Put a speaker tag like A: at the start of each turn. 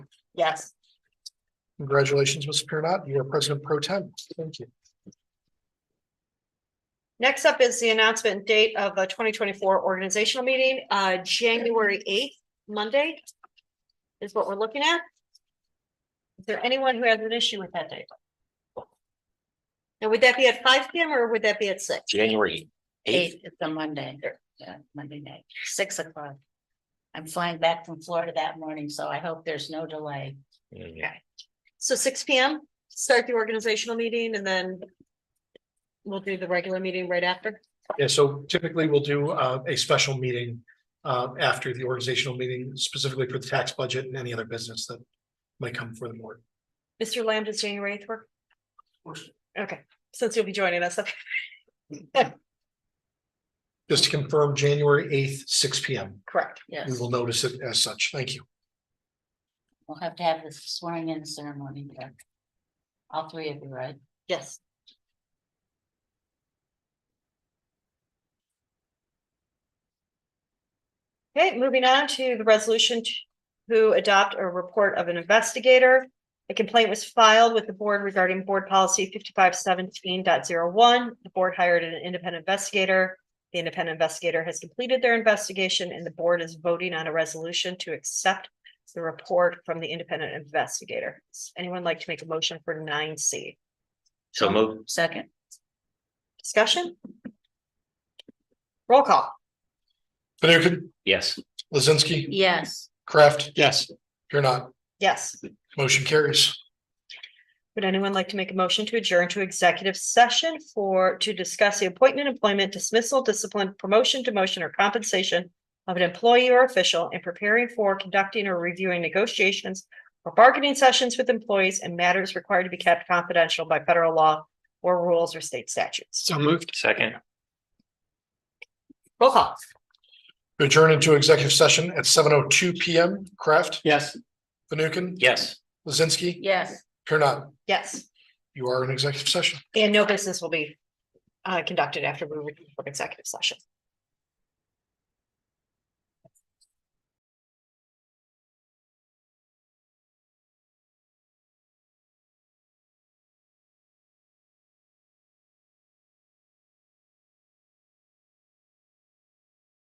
A: Yes.
B: Congratulations, Mr. Pirnat. You are President Pro Tem. Thank you.
A: Next up is the announcement and date of the twenty twenty-four organizational meeting, uh, January eighth, Monday. Is what we're looking at. Is there anyone who has an issue with that date? And would that be at five P M or would that be at six?
C: January eighth.
D: Eight, it's a Monday, or, yeah, Monday night, six o'clock. I'm flying back from Florida that morning, so I hope there's no delay.
C: Mm-hmm.
A: So six P M, start the organizational meeting and then. We'll do the regular meeting right after.
B: Yeah, so typically we'll do uh, a special meeting uh, after the organizational meeting specifically for the tax budget and any other business that might come for the board.
A: Mr. Lamb, does January eighth work?
B: course.
A: Okay, since you'll be joining us, okay,
B: Just to confirm, January eighth, six P M.
A: correct.
B: We
D: Yes,
B: will notice it as such. Thank you.
D: we'll have to have this swearing in ceremony. but All three of you, right?
A: Yes. Okay, moving on to the resolution to- to adopt a report of an investigator. A complaint was filed with the board regarding board policy fifty-five seventeen point zero one. The board hired an independent investigator. The independent investigator has completed their investigation and the board is voting on a resolution to accept the report from the independent investigator. Does Anyone like to make a motion for nine C?
C: So move,
D: Second,
A: Discussion? Roll call.
B: Fanukin,
C: yes,
B: Lizinski,
D: yes,
B: Kraft. Yes. Pirnat,
A: Yes.
B: motion carries.
A: Would anyone like to make a motion to adjourn to executive session for, to discuss the appointment, employment, dismissal, discipline, promotion, demotion, or compensation of an employee or official in preparing for conducting or reviewing negotiations or bargaining sessions with employees and matters required to be kept confidential by federal law or rules or state statutes?
B: moved.
C: second,
A: Roll call.
B: Adjourn into executive session at seven oh two P M. Kraft.
E: Yes.
B: Fanukin.
C: yes.
B: Lizinski,
D: yes.
B: Pirnat,
A: Yes.
B: you are in executive session.
A: And no business will be uh, conducted after we return from executive session.